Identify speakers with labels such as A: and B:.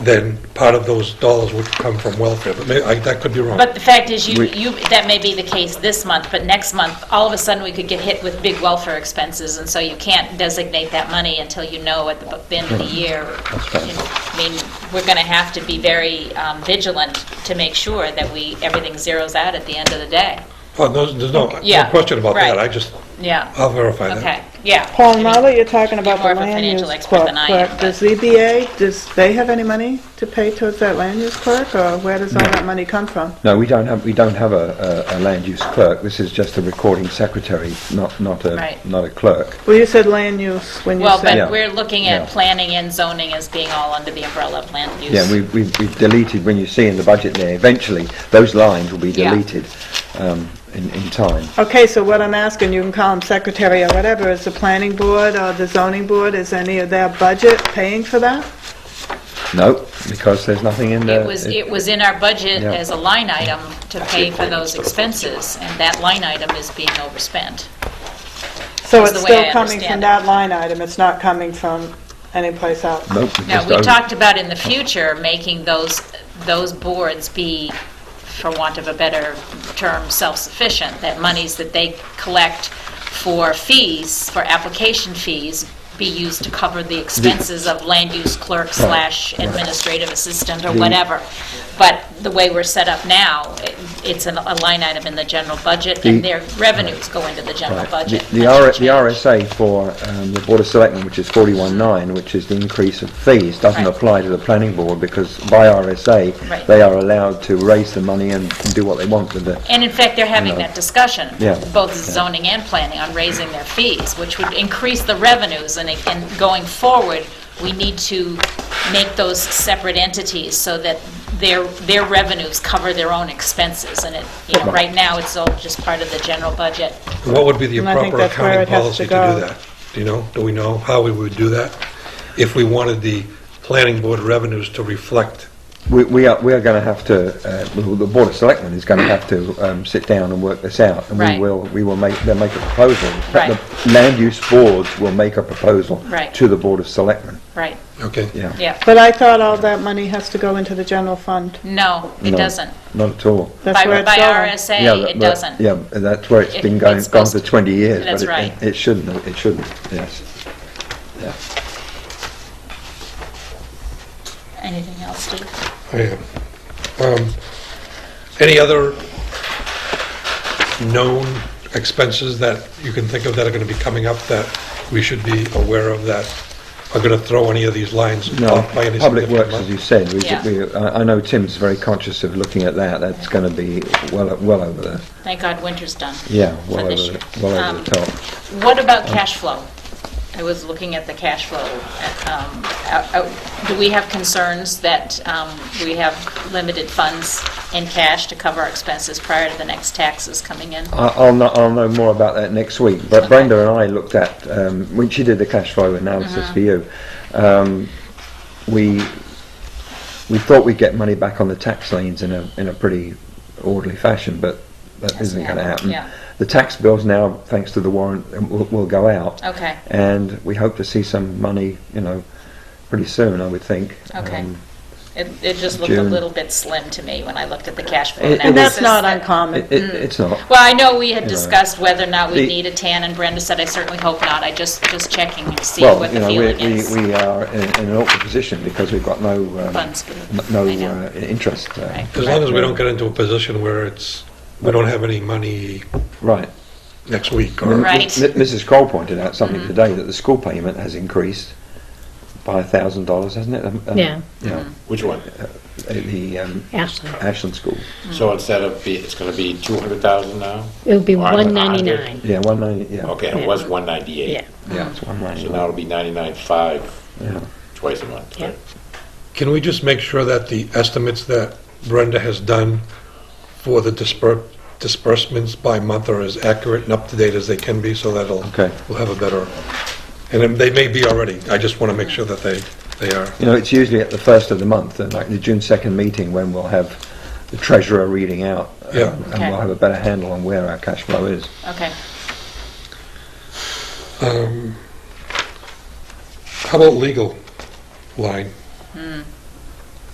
A: then part of those dollars would come from welfare, but may- I- that could be wrong.
B: But the fact is, you,
C: We-
B: you, that may be the case this month, but next month, all of a sudden, we could get hit with big welfare expenses, and so you can't designate that money until you know at the bu- end of the year.
C: right.
B: You know, I mean, we're going to have to be very um, vigilant to make sure that we, everything zeroes out at the end of the day.
A: Oh, no, There's no no
B: Yeah,
A: question about that,
B: right.
A: I just,
B: Yeah,
C: Uh,
A: I'll verify that.
B: okay, yeah.
D: Paul, now that you're talking about
B: more
D: the
B: of a
D: land use
B: financial expert
D: clerk,
B: than I am,
D: clerk,
B: but-
D: does ZBA, does they have any money to pay towards that land use clerk, or where does all that money come from?
C: No, we don't have, we don't have a, a, a land use clerk. This is just a recording secretary, not, not a,
B: Right.
C: not a clerk.
D: Well, you said land use when you
B: Well,
D: said,
B: but we're looking
C: Yeah.
B: at planning and zoning as being all under the umbrella of land use.
C: Yeah, we, we, we've deleted, when you see in the budget there, eventually, those lines will be
B: Yeah.
C: deleted, um, in, in time.
D: okay, so what I'm asking, you can call them secretary or whatever, is the planning board or the zoning board, is any of their budget paying for that?
C: No, because there's nothing in there.
B: It was, it was in our budget
C: Yeah.
B: as a line item to pay for those expenses, and that line item is being overspent.
D: So
B: That's
D: it's
B: the way I
D: still coming from
B: understand it.
D: that line item, it's not coming from anyplace else?
C: Nope, we
B: Now,
C: just
B: we
C: over-
B: talked about in the future, making those, those boards be, for want of a better term, self-sufficient, that monies that they collect for fees, for application fees, be used to cover the expenses of land use clerk slash administrative assistant or whatever. But the way we're set up now, it- it's an- a line item in the general budget, and
C: The-
B: their revenues go into the general
C: Right.
B: budget.
C: The- The R- the RSA for um, the Board of Selectmen, which is 41.9, which is the increase of fees, doesn't
B: Right.
C: apply to the planning board because by RSA,
B: Right.
C: they are allowed to raise the money and do what they want with the,
B: And in fact, they're having
C: No.
B: that discussion,
C: Yeah.
B: both zoning and planning, on raising their fees, which would increase the revenues, and again, going forward, we need to make those separate entities so that their, their revenues cover their own expenses, and it, you know, right now, it's all just part of the general budget.
A: What would be the
D: And I think
A: proper
D: that's where
A: accounting
D: it has
A: policy to
D: to
A: do
D: go.
A: that? Do you know, do we know how we would do that? If we wanted the planning board revenues to reflect,
C: we- we are, we are going to have to, uh, the the Board of Selectmen is going to have to um, sit down and work this out. And
B: Right.
C: we will, we will make, they'll make a proposal. In fact,
B: Right.
C: The land use boards will make a proposal
B: Right.
C: to the Board of Selectmen,
B: Right,
A: okay?
C: yeah.
B: yeah.
D: But I thought all that money has to go into the general fund.
B: No, it
C: No,
B: doesn't.
C: Not at all.
D: That's
B: By
D: where it's
B: by
D: going.
C: Yeah,
B: RSA,
C: that-
B: it
C: that-
B: doesn't.
C: Yeah, and that's where it's
B: It-
C: been going,
B: it's
C: gone for
B: supposed to-
C: 20 years.
B: That's
C: but it-
B: right.
C: It shouldn't, it shouldn't, yes. Yeah.
B: Anything else, Steve?
A: Yeah. Um, Any other known expenses that you can think of that are going to be coming up that we should be aware of that are going to throw any of these lines
C: No,
A: off by any
C: Public
A: significant
C: Works,
A: amount?
C: as you said, we,
B: Yeah.
C: we- I I know Tim's very conscious of looking at that, that's going to be well, well over the,
B: Thank God winter's done.
C: yeah,
B: for
C: well over
B: this year.
C: the, well over
B: Um,
C: the top.
B: What about cash flow? I was looking at the cash flow. um, out- out- Do we have concerns that um, we have limited funds in cash to cover our expenses prior to the next taxes coming in?
C: I- I'll know, I'll know more about that next week. But Brenda and I looked at, um, when she did the cash flow analysis
B: Mm-hmm.
C: for you, um, we, we thought we'd get money back on the tax liens in a, in a pretty orderly fashion, but that
B: Hasn't
C: isn't going to happen.
B: happened, yeah.
C: The tax bills now, thanks to the warrant, um, will, will go out.
B: Okay.
C: And we hope to see some money, you know, pretty soon, I would think.
B: Okay.
C: Um,
B: It it just looked a
C: June.
B: little bit slim to me when I looked at the cash flow
C: It- it
B: analysis.
C: was-
D: And that's not
B: that- Mm.
D: uncommon.
C: It, it- it's not.
B: Well, I know we had
C: You know.
B: discussed whether or not we
C: The-
B: need a tan, and Brenda said, I certainly hope not. I just, just checking to see
C: Well,
B: what
C: you
B: the
C: know,
B: feeling
C: we-
B: is.
C: We, we are in in an awkward position because we've got no, um,
B: Funds for
C: n-
B: the-
C: no
B: I know.
C: uh, interest. uh,
B: Right.
A: As long as we don't get into a position where it's, we don't have any money
C: Right.
A: next week
C: M-
A: or...
B: Right. Mm-hmm.
C: M- Mrs. Kroll pointed out something today, that the school payment has increased by a thousand dollars, hasn't it? Um, um,
E: Yeah.
C: Yeah,
F: Which one?
B: Mm-hmm.
C: Uh, the um,
E: Ashland.
C: Ashland School,
F: So instead of, be it's gonna be 200,000 now?
E: It would be
F: Or
E: 199.
C: yeah, one ninety, yeah.
F: Okay, it was 198.
E: Yeah.
C: Yeah, it's one
F: So
C: ninety.
F: now it'll be 99.5
C: Yeah.
F: twice a month,
E: Yeah.
F: right?
A: Can we just make sure that the estimates that Brenda has done for the disper- disbursements by month are as accurate and up to date as they can be, so that'll,
C: Okay.
A: we'll have a better, and then they may be already, I just want to make sure that they, they are.
C: You know, it's usually at the first of the month, and like the June second meeting, when we'll have the treasurer reading out. um,
A: Yeah.
C: And
B: Okay.
C: we'll have a better handle on where our cash flow is.
B: Okay.
A: Um, How about legal line?